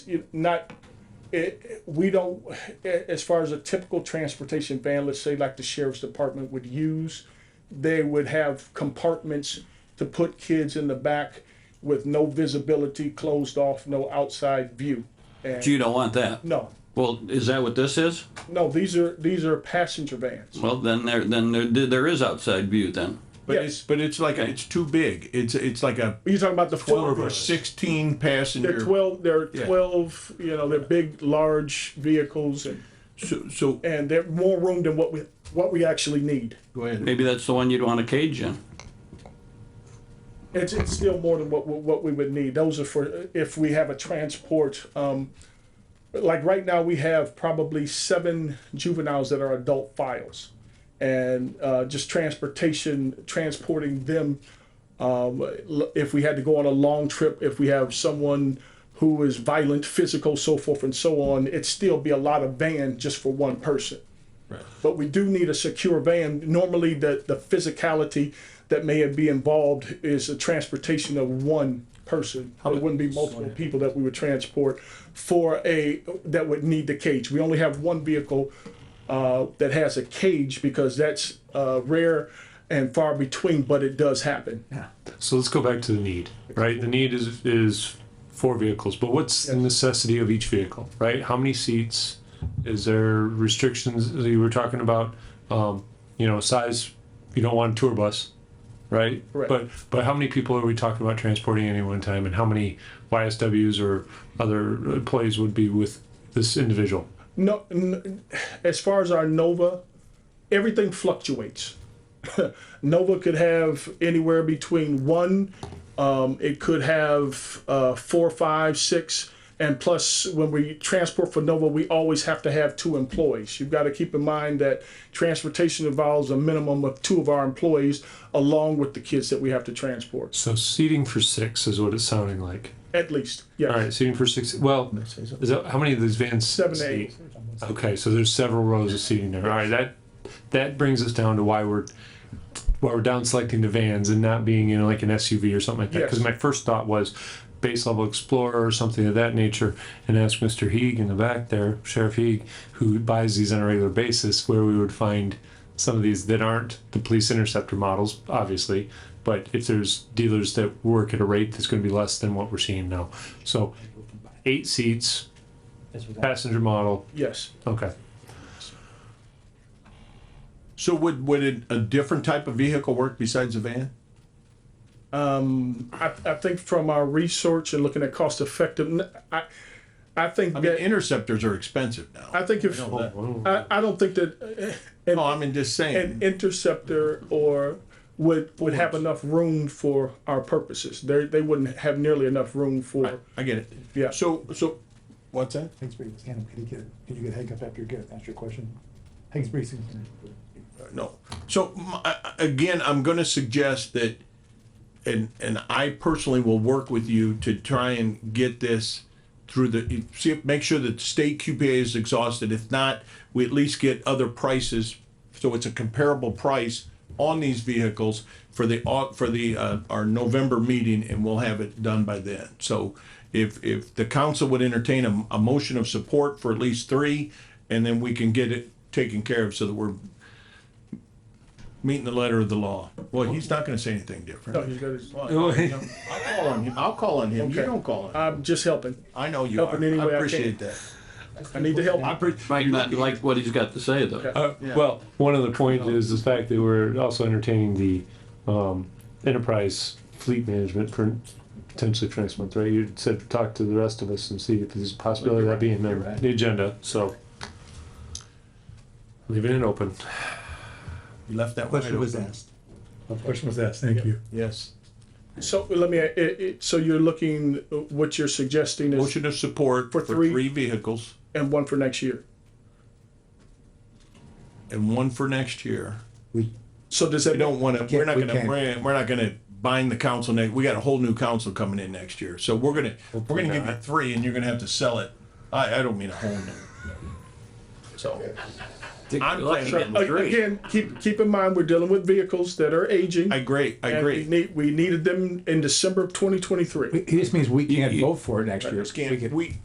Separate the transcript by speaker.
Speaker 1: you- not, it, it- we don't, a- as far as a typical transportation van, let's say like the sheriff's department would use, they would have compartments to put kids in the back with no visibility, closed off, no outside view. And
Speaker 2: You don't want that.
Speaker 1: no,
Speaker 2: Well, is that what this is?
Speaker 1: no, these are, these are passenger vans.
Speaker 2: Well, then there, then there, there is outside view then.
Speaker 3: But
Speaker 1: Yeah.
Speaker 3: it's but it's like a, it's too big. It's it's like a
Speaker 1: You're talking about the
Speaker 3: twelve or
Speaker 1: four-
Speaker 3: sixteen passenger.
Speaker 1: They're twelve, they're
Speaker 3: Yeah.
Speaker 1: twelve, you know, they're big, large vehicles and,
Speaker 3: So, so
Speaker 1: and they're more room than what we, what we actually need.
Speaker 3: go ahead.
Speaker 2: Maybe that's the one you'd want a cage in.
Speaker 1: It's, it's still more than what, what we would need. Those are for, if we have a transport, um, like right now, we have probably seven juveniles that are adult files. And, uh, just transportation, transporting them, um, l- if we had to go on a long trip, if we have someone who is violent, physical, so forth and so on, it'd still be a lot of van just for one person. But we do need a secure van. Normally, the, the physicality that may be involved is a transportation of one person. It wouldn't be multiple people that we would transport for a, that would need the cage. We only have one vehicle uh, that has a cage because that's uh, rare and far between, but it does happen.
Speaker 4: So let's go back to the need, right? The need is is four vehicles, but what's the necessity of each vehicle, right? How many seats? Is there restrictions? You were talking about, um, you know, size. You don't want a tour bus, right?
Speaker 1: Correct.
Speaker 4: But but how many people are we talking about transporting at any one time, and how many YSWs or other employees would be with this individual?
Speaker 1: No, n- as far as our Nova, everything fluctuates. Nova could have anywhere between one, um, it could have uh, four, five, six, and plus when we transport for Nova, we always have to have two employees. You've got to keep in mind that transportation involves a minimum of two of our employees along with the kids that we have to transport,
Speaker 4: So seating for six is what it's sounding like.
Speaker 1: at least. Yes.
Speaker 4: All right, seating for six. Well, is that how many of these vans?
Speaker 1: Seven to
Speaker 4: seat?
Speaker 1: eight.
Speaker 4: Okay, so there's several rows of seating there. All right, that that brings us down to why we're why we're down selecting the vans and not being in like an SUV or something like that. Because
Speaker 1: Yes.
Speaker 4: my first thought was base level explorer or something of that nature, and ask Mr. Heeg in the back there, Sheriff Heeg, who buys these on a regular basis, where we would find some of these that aren't the police interceptor models, obviously. But if there's dealers that work at a rate that's going to be less than what we're seeing now, so eight seats, passenger model.
Speaker 1: Yes.
Speaker 4: Okay.
Speaker 3: So would would it, a different type of vehicle work besides a van?
Speaker 1: I, I think from our research and looking at cost effective, I, I think
Speaker 3: I mean,
Speaker 1: that
Speaker 3: interceptors are expensive now.
Speaker 1: I think if
Speaker 3: know that.
Speaker 1: I, I don't think that uh,
Speaker 3: no, I mean just saying.
Speaker 1: an interceptor or would would have enough room for our purposes. They they wouldn't have nearly enough room for.
Speaker 3: I get it.
Speaker 1: Yeah.
Speaker 3: So so, what's that?
Speaker 5: Hanks Breathing Can you get, can you get Hank up after you get, that's your question? Hanks Breathing Can.
Speaker 3: no. So m- I- I- again, I'm going to suggest that, and and I personally will work with you to try and get this through the see if, make sure that state QPA is exhausted. If not, we at least get other prices, so it's a comparable price on these vehicles for the au- for the uh, our November meeting, and we'll have it done by then. So. If, if the council would entertain a, a motion of support for at least three, and then we can get it taken care of so that we're meeting the letter of the law. Well, he's not gonna say
Speaker 1: No,
Speaker 3: anything different.
Speaker 1: he's got his-
Speaker 3: I'll call on him, I'll call on him, you
Speaker 1: Okay.
Speaker 3: don't call on him.
Speaker 1: I'm just helping.
Speaker 3: I know you
Speaker 1: help
Speaker 3: are,
Speaker 1: in any
Speaker 3: I
Speaker 1: way I
Speaker 3: appreciate that. Oh,
Speaker 1: I need to help.
Speaker 3: I appreciate,
Speaker 2: Might not like what he's got to say though.
Speaker 4: Uh, Well, one of the points is the fact that we're also entertaining the um, enterprise fleet management for potentially for next month, right? You said talk to the rest of us and see if there's a possibility of that being on the agenda, so. Leaving it open.
Speaker 3: you left that wide open.
Speaker 5: asked. A question was asked, thank you.
Speaker 3: Yes.
Speaker 1: So let me. It, it, so you're looking. What you're suggesting is
Speaker 3: Motion of support for
Speaker 1: For three.
Speaker 3: three vehicles
Speaker 1: and one for next year.
Speaker 3: and one for next year.
Speaker 1: So does that
Speaker 3: We don't wanna, we're not
Speaker 5: we
Speaker 3: gonna,
Speaker 5: can't.
Speaker 3: we're, we're not gonna bind the council next, we got a whole new council coming in next year. So we're gonna, we're gonna give you three and you're gonna have to sell it. I, I don't mean a whole new. So, I'm planning-
Speaker 1: A- again? Keep keep in mind we're dealing with vehicles that are aging.
Speaker 3: I agree, I
Speaker 1: and
Speaker 3: agree.
Speaker 1: We, need, we needed them in December of 2023.
Speaker 5: He just means we can't vote for it next year.
Speaker 3: Scan- We,